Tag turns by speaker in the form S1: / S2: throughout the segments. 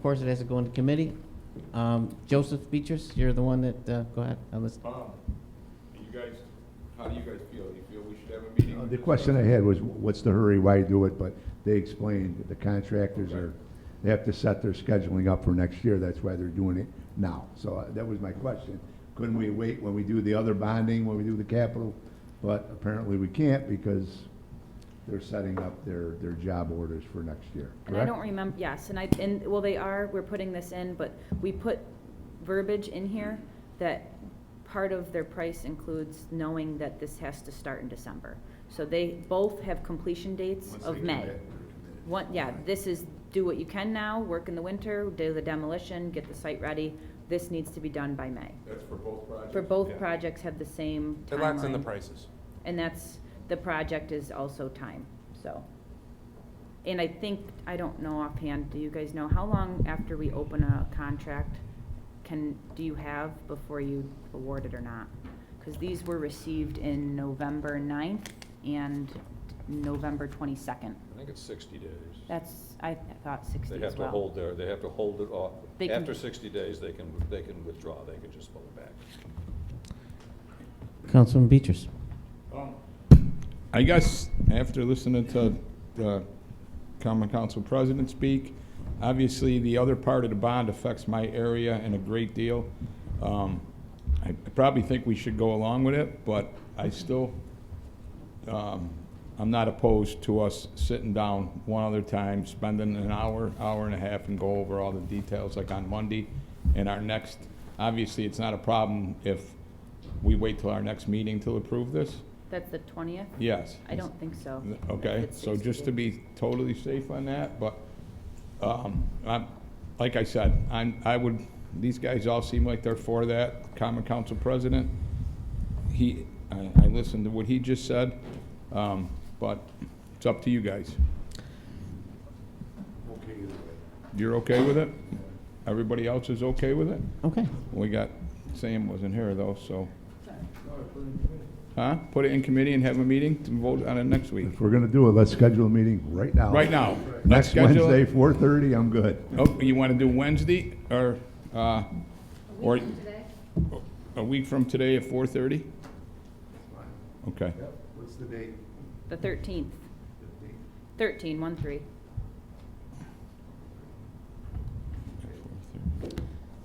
S1: Of course, it has to go into committee. Um, Joseph Beechers, you're the one that, uh, go ahead, I'll listen.
S2: Um, do you guys, how do you guys feel? Do you feel we should have a meeting?
S3: Uh, The question I had was, what's the hurry, why do it? But they explained that the contractors are, they have to set their scheduling up for next year, that's why they're doing it now. So uh, that was my question. Couldn't we wait when we do the other bonding, when we do the capital? But apparently we can't because they're setting up their, their job orders for next year,
S4: And I
S3: correct?
S4: don't remember, yes, and I, and, well, they are, we're putting this in, but we put verbiage in here that part of their price includes knowing that this has to start in December. So they both have completion dates
S3: Once
S4: of
S3: they
S4: May.
S3: commit,
S4: One, yeah, this is do what you can now, work in the winter, do the demolition, get the site ready. This needs to be done by May.
S2: That's for both projects?
S4: For both
S5: Yeah.
S4: projects have the same
S5: It locks in the
S4: timeline.
S5: prices.
S4: And that's, the project is also time, so. And I think, I don't know offhand, do you guys know, how long after we open a contract can, do you have before you award it or not? Because these were received in November 9th and November twenty-second.
S2: I think it's sixty days.
S4: That's, I thought sixty
S2: They
S4: as well.
S2: have to hold their, they have to hold it off.
S4: They can-
S2: After sixty days, they can, they can withdraw, they can just pull it back.
S1: Councilman Beechers.
S6: I guess after listening to the common council president speak, obviously the other part of the bond affects my area in a great deal. Um, I I probably think we should go along with it, but I still, um, I'm not opposed to us sitting down one other time, spending an hour, hour and a half, and go over all the details like on Monday. And our next, obviously, it's not a problem if we wait till our next meeting to approve this.
S4: That's the twentieth?
S6: Yes.
S4: I don't think so.
S6: Okay,
S4: It's
S6: so
S4: 60
S6: just to
S4: days.
S6: be totally safe on that, but, um, I'm, like I said, I'm, I would, these guys all seem like they're for that, common council president. He, I, I listened to what he just said, um, but it's up to you guys. You're okay with it? Everybody else is okay with it?
S1: Okay.
S6: We got, Sam wasn't here though, so. Huh? Put it in committee and have a meeting to vote on it next week.
S3: If we're gonna do it, let's schedule a meeting right now.
S6: Right now.
S3: Next
S6: Schedule
S3: Wednesday,
S6: it.
S3: four thirty, I'm good.
S6: Oh, you want to do Wednesday or, uh, or? A week from today at four thirty? Okay.
S3: What's the date?
S4: The thirteenth. Thirteen, one, three.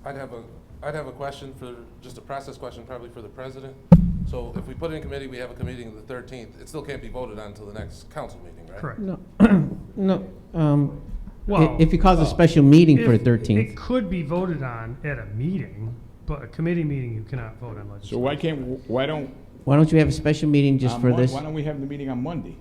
S5: I'd have a, I'd have a question for, just a process question probably for the president. So if we put it in committee, we have a committee on the thirteenth, it still can't be voted on until the next council meeting, right?
S7: Correct.
S1: No, no, um, i-
S7: Well,
S1: if you cause a special meeting for
S7: If-
S1: the thirteenth.
S7: It could be voted on at a meeting, but a committee meeting, you cannot vote on
S6: So
S7: legislation.
S6: why can't, why don't?
S1: Why don't you have a special meeting just
S6: on
S1: for
S6: Mon-
S1: this?
S6: Um, Why don't we have the meeting on Monday?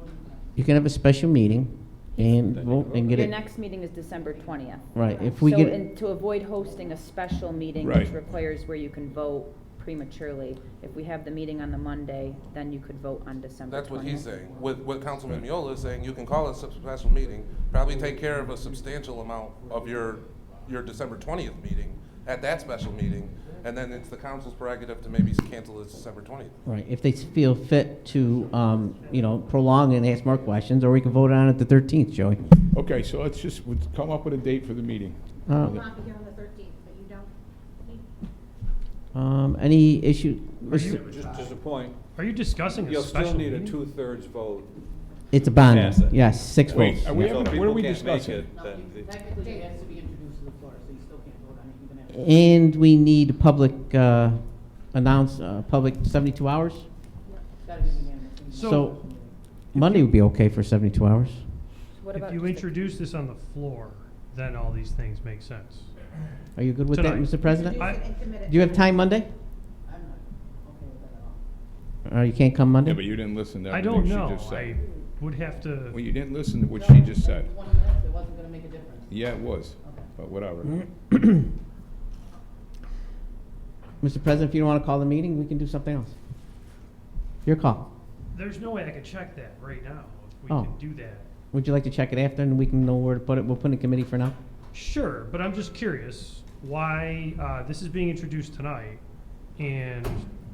S1: You can have a special meeting and, vote and get
S4: Your
S1: it,
S4: next meeting is December twentieth.
S1: right, if
S4: So,
S1: we get, it-
S4: and to avoid hosting a special meeting,
S6: Right.
S4: which requires where you can vote prematurely, if we have the meeting on the Monday, then you could vote on December
S5: That's what he's
S4: 20th.
S5: saying. What, what Councilman Miola is saying, you can call a sub- special meeting, probably take care of a substantial amount of your, your December twentieth meeting at that special meeting, and then it's the council's prerogative to maybe cancel this December twentieth.
S1: right, if they feel fit to, um, you know, prolong and ask more questions, or we can vote on it the thirteenth, Joey.
S6: Okay, so let's just, we'll come up with a date for the meeting.
S1: Uh,
S8: will not be here on the thirteenth, but you don't need
S1: Um, any issue,
S2: Just, just a point,
S7: Are you discussing a
S2: you'll still
S7: special
S2: need a
S7: meeting?
S2: two-thirds vote.
S1: it's a bond,
S2: Pass it.
S1: yes, six votes.
S6: Wait, are we
S1: yeah.
S2: So
S6: having-
S2: if
S6: what are we
S2: people can't make
S6: discussing?
S2: it, then the-
S9: Technically, it has to be introduced to the floor, so you still can't vote on it even after.
S1: And we need public, uh, announce, uh, public seventy-two hours?
S9: It's gotta be unanimous.
S1: So, Monday would be okay for seventy-two hours.
S4: What about
S7: If you
S4: just the-
S7: introduce this on the floor, then all these things make sense.
S1: Are you good with that,
S7: Tonight.
S1: Mr. President?
S7: I-
S8: to and commit it.
S1: Do you have time Monday?
S9: I'm not okay with that at all.
S1: Or Uh, you can't come Monday?
S6: Yeah, but you didn't listen to
S7: I don't
S6: everything she
S7: know.
S6: just
S7: I
S6: said.
S7: would have
S6: Well,
S7: to,
S6: you didn't listen to what she
S9: No,
S6: just said.
S9: Twenty minutes, it wasn't gonna make a difference.
S6: Yeah, it was, but whatever.
S1: Mm-hmm. Mr. President, if you don't want to call the meeting, we can do something else. Your call.
S7: there's no way I could check that right now, if we
S1: Oh.
S7: can do that.
S1: Would you like to check it after, and we can know where to put it? We'll put it in committee for now.
S7: Sure, but I'm just curious why uh, this is being introduced tonight and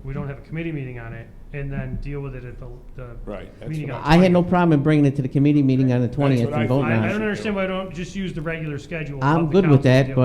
S7: we don't have a committee meeting on it, and then deal with it at the,
S6: Right,
S7: the
S6: that's
S7: meeting
S6: what
S7: on.
S1: I had no problem in bringing it to the committee meeting on the
S6: what
S1: twentieth
S6: I
S7: I,
S1: and voting
S6: thought.
S7: I
S1: on
S7: don't
S1: it.
S7: understand why I don't just use the regular schedule.
S1: I'm
S7: of the
S1: good with
S7: council to
S1: that,
S7: deal
S1: but